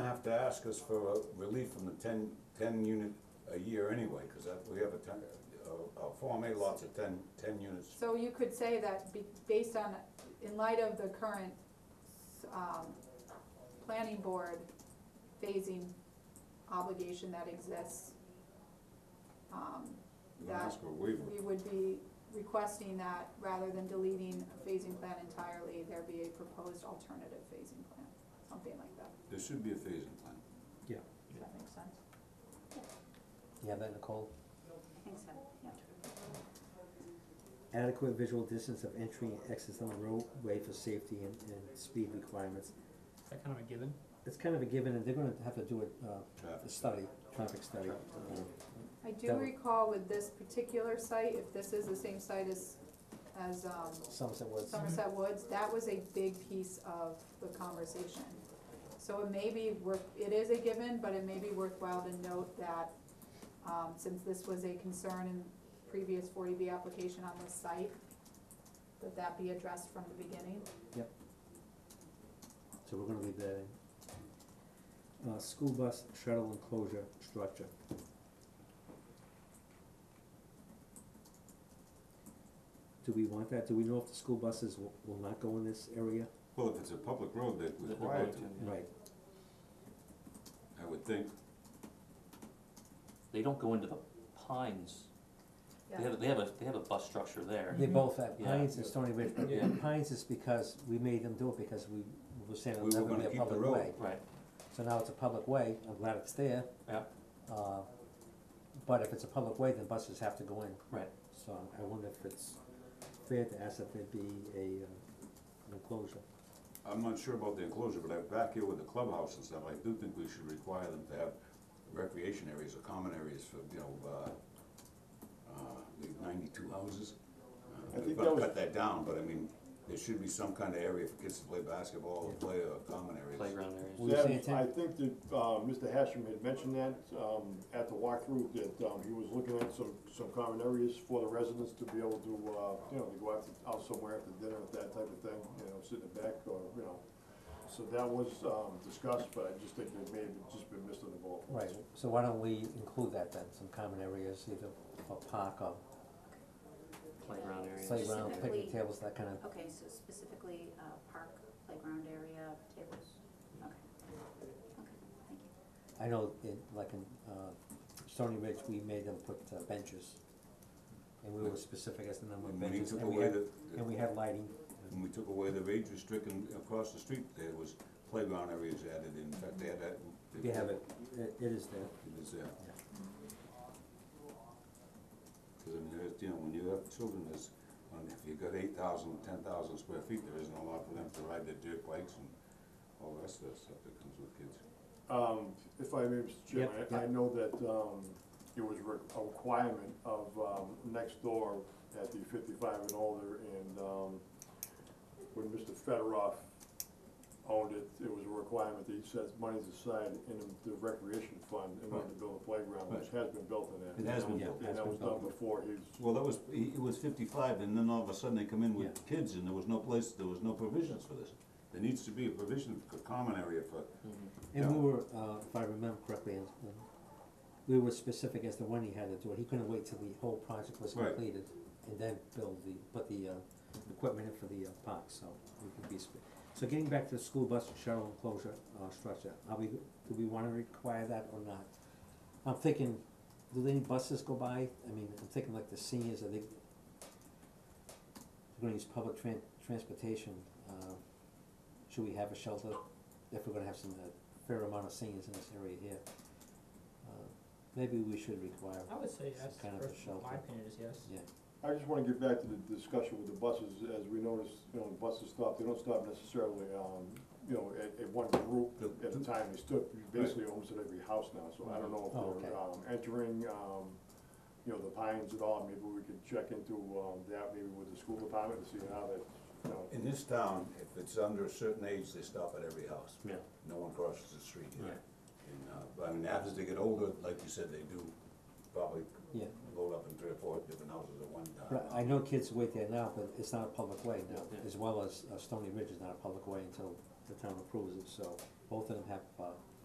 have to ask us for a relief from the ten, ten unit a year anyway, cause that, we have a ten, uh, uh, Form A lots of ten, ten units. So you could say that be, based on, in light of the current, um, planning board phasing obligation that exists, um, We're gonna ask for a waiver. we would be requesting that rather than deleting a phasing plan entirely, there be a proposed alternative phasing plan, something like that. There should be a phasing plan. Does that make sense? You have that, Nicole? I think so, yeah. Adequate visual distance of entry and exits on the roadway for safety and, and speed requirements. Is that kind of a given? It's kind of a given, and they're gonna have to do a, uh, a Traffic. study, traffic study. uh, I do That would- recall with this particular site, if this is the same site as, as, um, Somerset Woods. Somerset Woods, that was a big piece of the conversation. So it may be worth, it is a given, but it may be worthwhile to note that, um, since this was a concern in previous forty B application on this site, that that be addressed from the beginning. So we're gonna leave that in. Uh, school bus shuttle enclosure structure. Do we want that? Do we know if the school buses will, will not go in this area? Well, if it's a public road, they're They're required required to, to, yeah. Right, I would think. They don't go into the pines. They have, they have a, they have a bus structure there. they both have, Yeah. Pines and Stony Ridge, but Yeah. Pines is because we made them do it because we, we were saying We were it'll never gonna be a keep the public way. road. Right, So now it's a public way, I'm glad it's there. Yeah. Uh, but if it's a public way, then buses have to go in. Right. So I wonder if it's fair to ask that there be a, uh, an enclosure. I'm not sure about the enclosure, but I- back here with the clubhouse and stuff, I do think we should require them to have recreation areas or common areas for, you know, uh, uh, the ninety-two houses. I Uh, We've think got that to was- cut that down, but I mean, there should be some kind of area for kids to play basketball or play or common areas. playground areas. Well, you That- say it's in- I think that, uh, Mr. Hashem had mentioned that, um, at the walkthrough, that, um, he was looking at some, some common areas for the residents to be able to, uh, you know, to go out, to- out somewhere after dinner, that type of thing, you know, sit in the back or, you know. So that was, um, discussed, but I just think it may have just been missed on the ball. Right, so why don't we include that then, some common areas, either a park or Playground areas. playground, picnic Specifically- tables, that kind of, Okay, so specifically, uh, park, playground area, tables, okay. Okay, thank you. I know in, like in, uh, Stony Ridge, we made them put uh, benches. And we were specific as the number of When we benches, took and we away had, the, and we had lighting, when we took away the age restriction across the street, there was playground areas added in, in fact, they had that. you have it, it, it is there. It is, yeah. Cause I mean, there's, you know, when you have children, there's, when if you got eight thousand, ten thousand square feet, there isn't a lot for them to ride their dirt bikes and all the rest of that stuff that comes with kids. Um, if I may, Mr. Chairman, Yep, I, I yep. know that, um, it was re- a requirement of, um, next door at the fifty-five and older, and, um, when Mr. Federoff owned it, it was a requirement that he sets monies aside in the recreation fund in order to build a playground, which has been built in that. It has been Yeah. built. And that was done before his, Well, that was, it was fifty-five, and then all of a sudden they come in with kids, and there was no place, there was no provisions for this. There needs to be a provision, a common area for, Mm-hmm. And we Yeah. were, uh, if I remember correctly, and, and we were specific as to when he had to do it, he couldn't wait till the whole project was Right. completed and then build the, put the, uh, equipment in for the, uh, park, so we could be sp- so getting back to the school bus shuttle enclosure, uh, structure, are we, do we wanna require that or not? I'm thinking, do any buses go by, I mean, I'm thinking like the seniors, are they, they're gonna use public tran- transportation, uh, should we have a shelter if we're gonna have some, uh fair amount of seniors in this area here. Uh, Maybe we should require, I would say Some yes, kind of a for, my shelter. opinion is yes. yeah, I just wanna get back to the discussion with the buses, as we noticed, you know, the buses stop, they don't stop necessarily, um, you know, at, at one group at the time, they stood basically almost at every house now, so I don't know Oh, if okay. they're, um, entering, um, you know, the pines at all, maybe we could check into, um, that, maybe with the school department to see how that, you know, in this town, if it's under a certain age, they stop at every house. Yeah. No one crosses the street here. Right. And, uh, but I mean, as they get older, like you said, they do probably yeah. load up in three or four different houses at one But time. I know kids wait there now, but it's not a public way now, Yeah. as well as uh, Stony Ridge is not a public way until the town approves it, so both of them have, uh,